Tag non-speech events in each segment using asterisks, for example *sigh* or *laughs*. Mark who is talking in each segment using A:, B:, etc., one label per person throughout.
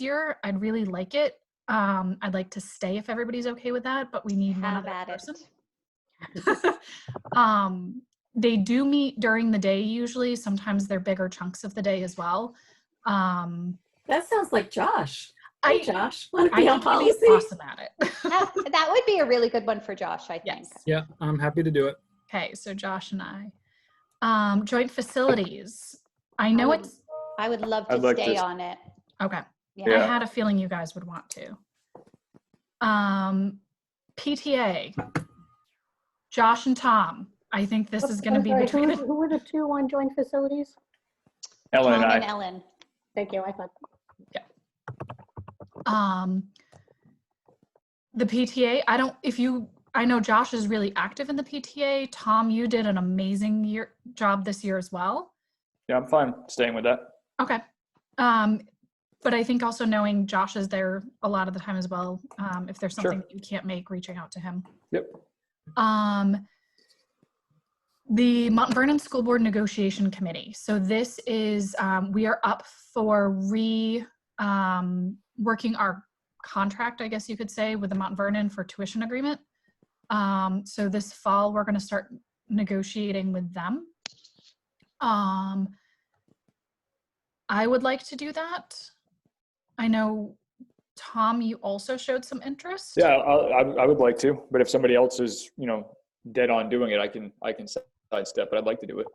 A: year. I'd really like it. Um, I'd like to stay if everybody's okay with that, but we need one
B: How
A: other
B: about it?
A: person. *laughs* um, they do meet during the day usually. Sometimes they're bigger chunks of the day as well. Um,
C: That sounds like Josh. Hey,
A: I,
C: Josh, want to
A: I
C: be on
A: think he's
C: policy?
A: awesome at it.
B: *laughs* That that would be a really good one for Josh, I
A: *laughs*
B: think.
A: Yes.
D: Yeah, I'm happy to do it.
A: okay, so Josh and I. Um, joint facilities. I
C: Oh.
A: know
B: would-
A: it's
B: I would love
E: I'd
B: to
E: like
B: stay
E: to-
B: on it.
A: okay.
E: Yeah.
A: I had a feeling you guys would want to. Um, PTA. Josh and Tom. I think this is going to
F: I'm
A: be
F: sorry,
A: between.
F: Who were- who were the two on joint facilities?
E: Ellen
B: Tom
E: and
B: and
E: I.
B: Ellen.
F: Thank you, I thought.
A: um the PTA I don't if you I know Josh is really active in the PTA Tom you did an amazing year job this year as well
E: Yeah, I'm fine staying with that.
A: okay um but I think also knowing Josh is there a lot of the time as well um if there's
E: Sure.
A: something that you can't make reaching out to him
E: Yep.
A: um the Mount Vernon School Board Negotiation Committee. So this is um, we are up for re um, working our contract, I guess you could say, with the Mount Vernon for tuition agreement. Um, so this fall, we're going to start negotiating with them. Um, I would like to do that. I know, Tom, you also showed some interest.
E: Yeah, I, I, I would like to, but if somebody else is, you know, dead on doing it, I can, I can sidestep, but I'd like to do it.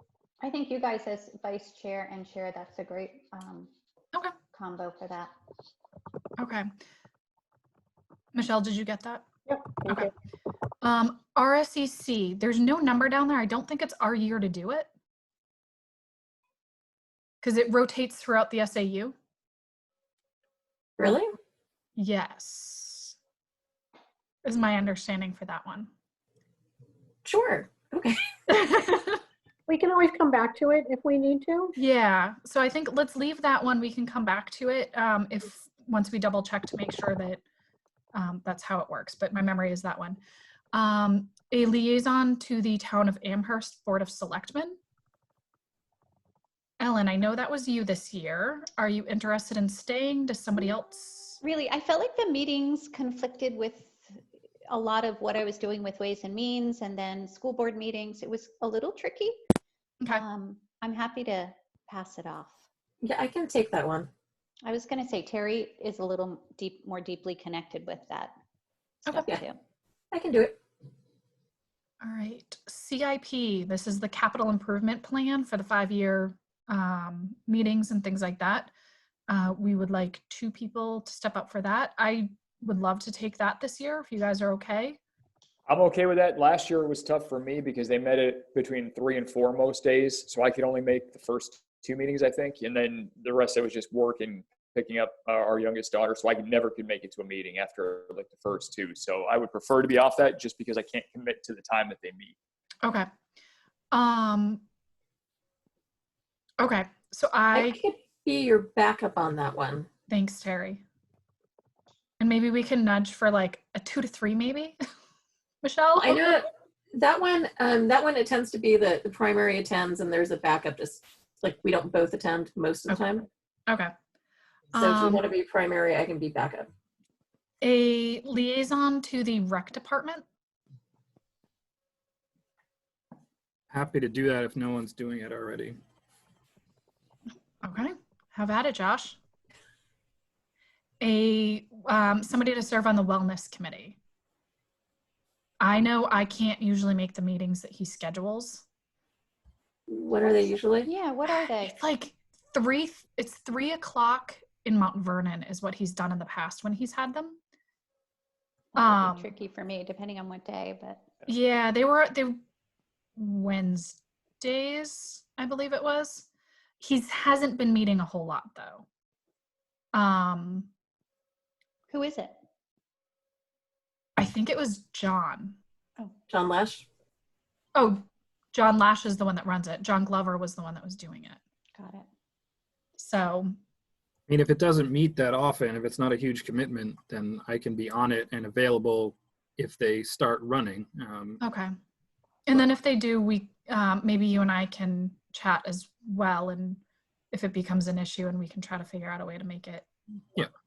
B: I think you guys as vice chair and chair, that's a great um,
A: Okay.
B: combo for that.
A: Okay. Michelle, did you get that?
F: Yep. thank
A: Okay.
F: you.
A: Um, RSEC, there's no number down there. I don't think it's our year to do it. Because it rotates throughout the SAU.
C: Really?
A: Yes. Is my understanding for that one.
C: Sure. Okay.
A: *laughs*
F: We can always come back to it if we need to.
A: yeah. So I think let's leave that one. We can come back to it um, if once we double check to make sure that um, that's how it works. But my memory is that one. Um, a liaison to the town of Amherst Board of Selectmen. Ellen, I know that was you this year. Are you interested in staying? Does somebody else?
B: Really, I felt like the meetings conflicted with a lot of what I was doing with Ways and Means and then school board meetings. It was a little tricky.
A: Okay.
B: Um, I'm happy to pass it off.
C: Yeah, I can take that one.
B: I was going to say Terry is a little deep, more deeply connected with that.
A: Okay.
B: stuff
C: Yeah.
B: too.
C: I can do it.
A: All right, CIP, this is the capital improvement plan for the five-year um, meetings and things like that. Uh, We would like two people to step up for that. I would love to take that this year if you guys are okay.
E: I'm okay with that. Last year it was tough for me because they met it between three and four most days, so I could only make the first two meetings, I think, and then the rest of it was just work and picking up uh, our youngest daughter, so I never could make it to a meeting after like the first two. So I would prefer to be off that just because I can't commit to the time that they meet.
A: Okay. Um. Okay, so
C: I
A: I,
C: could be your backup on that one.
A: thanks Terry. And maybe we can nudge for like a two to three maybe? *laughs* Michelle?
C: I know that one. Um, that one it tends to be the the primary attends, and there's a backup. Just like we don't both attend most of the time.
A: Okay.
C: So if you
A: Um,
C: want to be primary, I can be backup.
A: a liaison to the rec department.
D: Happy to do that if no one's doing it already.
A: Okay, have at it, Josh. A um, somebody to serve on the wellness committee. I know I can't usually make the meetings that he schedules.
C: What are they usually?
B: Yeah,
A: *sighs*
B: what are they?
A: It's like three. It's three o'clock in Mount Vernon is what he's done in the past when he's had them.
B: That would
A: um,
B: be tricky for me, depending on what day, but
A: Yeah, they were they Wednesdays, I believe it was. He's hasn't been meeting a whole lot though. Um,
B: who is it?
A: I think it was John.
C: John Lash.
A: Oh, John Lash is the one that runs it. John Glover was the one that was doing it.
B: Got it.
A: So,
D: I mean, if it doesn't meet that often, if it's not a huge commitment, then I can be on it and available if they start running. Um,
A: okay. And then if they do, we um, maybe you and I can chat as well, and if it becomes an issue, and we can try to figure out a way to make it.
D: Yeah.
A: work.